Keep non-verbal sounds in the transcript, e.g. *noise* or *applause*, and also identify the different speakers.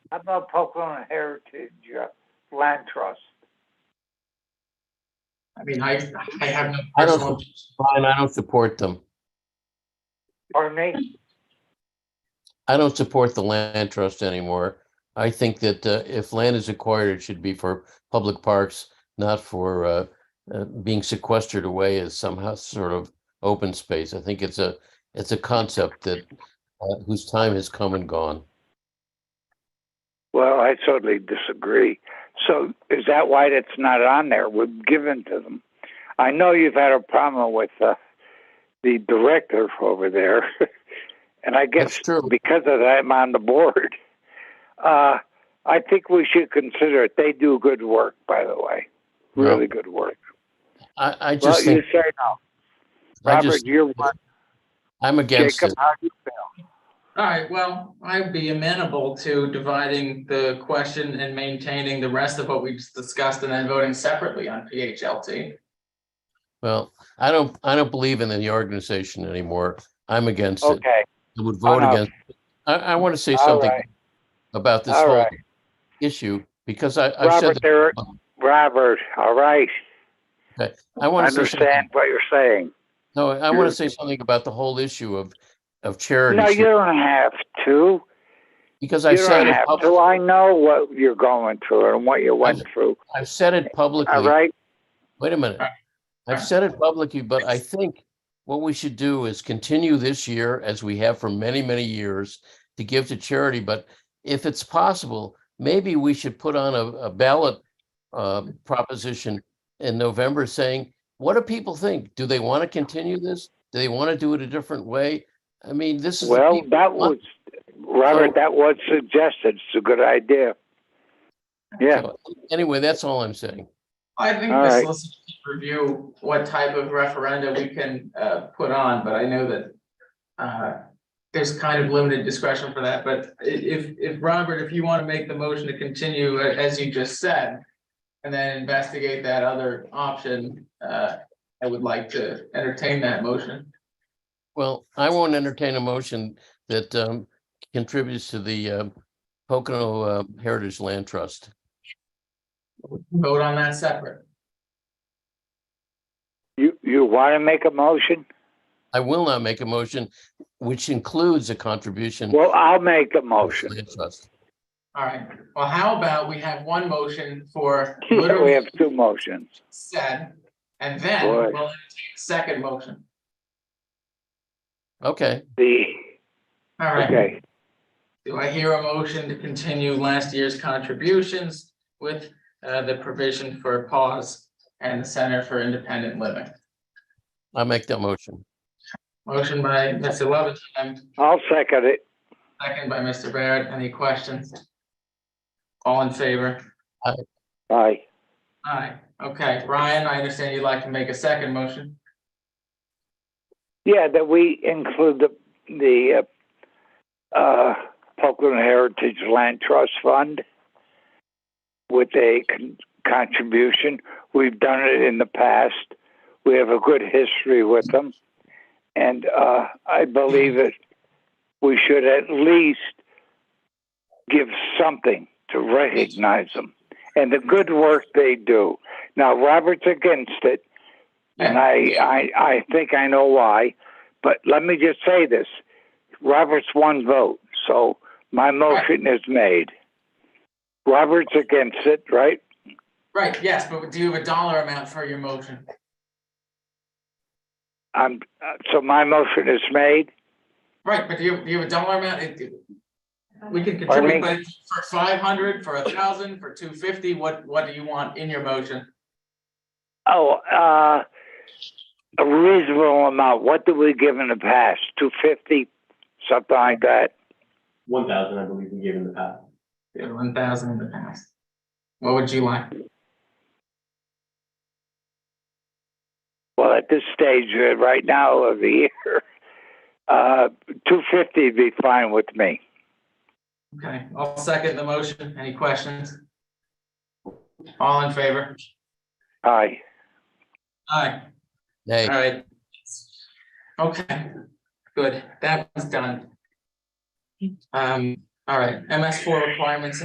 Speaker 1: How about Pocono Heritage uh, Land Trust?
Speaker 2: I mean, I, I have no
Speaker 3: I don't-
Speaker 2: personal,
Speaker 3: Fine, I don't support them.
Speaker 1: Pardon me?
Speaker 3: I don't support the land trust anymore. I think that uh, if land is acquired, it should be for public parks, not for uh, uh, being sequestered away as somehow sort of open space. I think it's a, it's a concept that uh, whose time has come and gone.
Speaker 1: Well, I totally disagree. So is that why it's not on there? We've given to them. I know you've had a problem with uh, the director over there, *laughs* and I guess
Speaker 3: That's true.
Speaker 1: because of that, I'm on the board. *laughs* Uh, I think we should consider it. They do good work, by the way. Really good work.
Speaker 3: I, I
Speaker 1: Well,
Speaker 3: just
Speaker 1: you
Speaker 3: think,
Speaker 1: say no.
Speaker 3: I
Speaker 1: Robert,
Speaker 3: just,
Speaker 1: you're one.
Speaker 3: I'm against
Speaker 1: Jacob,
Speaker 3: it.
Speaker 1: how do you feel?
Speaker 2: all right, well, I'd be amenable to dividing the question and maintaining the rest of what we just discussed and then voting separately on PHLT.
Speaker 3: Well, I don't, I don't believe in the organization anymore. I'm against it.
Speaker 1: Okay,
Speaker 3: I would vote
Speaker 1: no.
Speaker 3: against. I, I want to say
Speaker 1: All
Speaker 3: something
Speaker 1: right.
Speaker 3: about this
Speaker 1: All
Speaker 3: whole
Speaker 1: right.
Speaker 3: issue, because I, I've said,
Speaker 1: Robert,
Speaker 3: that-
Speaker 1: there, Robert, all right.
Speaker 3: I
Speaker 1: I
Speaker 3: want to say, something-
Speaker 1: understand what you're saying.
Speaker 3: no, I want to say something about the whole issue of,
Speaker 1: No,
Speaker 3: of
Speaker 1: you
Speaker 3: charities,
Speaker 1: don't have to.
Speaker 3: because
Speaker 1: You
Speaker 3: I've
Speaker 1: don't
Speaker 3: said, it
Speaker 1: have
Speaker 3: pub-
Speaker 1: to. I know what you're going through and what you went through,
Speaker 3: I've said it
Speaker 1: all
Speaker 3: publicly.
Speaker 1: right?
Speaker 3: Wait a minute.
Speaker 2: Alright.
Speaker 3: I've
Speaker 2: Alright.
Speaker 3: said it publicly, but I think what we should do is continue this year as we have for many, many years to give to charity. But if it's possible, maybe we should put on a, a ballot uh, proposition in November saying, what do people think? Do they want to continue this? Do they want to do it a different way? I mean, this is. the
Speaker 1: Well,
Speaker 3: people-
Speaker 1: that was, Robert, that was suggested. It's a good idea. Yeah,
Speaker 3: Anyway, that's all I'm saying.
Speaker 2: I think
Speaker 1: All
Speaker 2: the
Speaker 1: right.
Speaker 2: solicitor should review what type of referenda we can uh put on, but I know that. Uh, there's kind of limited discretion for that, but i- if if Robert, if you want to make the motion to continue a- as you just said. And then investigate that other option, uh, I would like to entertain that motion.
Speaker 3: Well, I won't entertain a motion that um, contributes to the uh, Pocono uh, Heritage Land Trust.
Speaker 2: Vote on that separate.
Speaker 1: you, you want to make a motion?
Speaker 3: I will not make a motion which includes a contribution.
Speaker 1: Well, I'll make a
Speaker 3: to the
Speaker 1: motion.
Speaker 3: land trust.
Speaker 2: All right, well, how about we have one motion for
Speaker 1: *laughs* We
Speaker 2: literally
Speaker 1: have two motions.
Speaker 2: said, and then we'll
Speaker 1: Boy.
Speaker 2: entertain a second motion.
Speaker 3: Okay,
Speaker 1: The,
Speaker 2: All right,
Speaker 1: okay,
Speaker 2: do I hear a motion to continue last year's contributions with uh, the provision for pause and the Center for Independent Living?
Speaker 3: I make that motion.
Speaker 2: Motion by Mr. Levinson,
Speaker 1: I'll second it.
Speaker 2: second by Mr. Barrett. Any questions? All in favor?
Speaker 1: Aye.
Speaker 2: Aye. Okay, Ryan, I understand you'd like to make a second motion.
Speaker 1: Yeah, that we include the, the, uh, uh, Pocono Heritage Land Trust Fund with a con- contribution. We've done it in the past. We have a good history with them. And, uh, I believe that we should at least give something to recognize them and the good work they do. Now, Robert's against it. And I, uh, I, I think I know why, but let me just say this. Robert's one vote, so my motion is made. Robert's against it, right?
Speaker 2: Right, yes, but do you have a dollar amount for your motion?
Speaker 1: I'm, uh, so my motion is made.
Speaker 2: Right, but do you, do you have a dollar amount? It- it- We can
Speaker 1: Pardon me?
Speaker 2: contribute, but for five hundred, for a thousand, for two fifty, what, what do you want in your motion?
Speaker 1: Oh, uh, a reasonable amount. What did we give in the past? Two fifty, something like that?
Speaker 4: One thousand, I believe we gave in the past.
Speaker 2: One thousand in the past. What would you like?
Speaker 1: Well, at this stage, uh, right now of the year, *laughs* uh, two fifty would be fine with me.
Speaker 2: Okay, I'll second the motion. Any questions? All in favor?
Speaker 1: Aye.
Speaker 2: Aye,
Speaker 3: Nay,
Speaker 2: all right. Okay, good. That was done. Um, all right, MS four requirements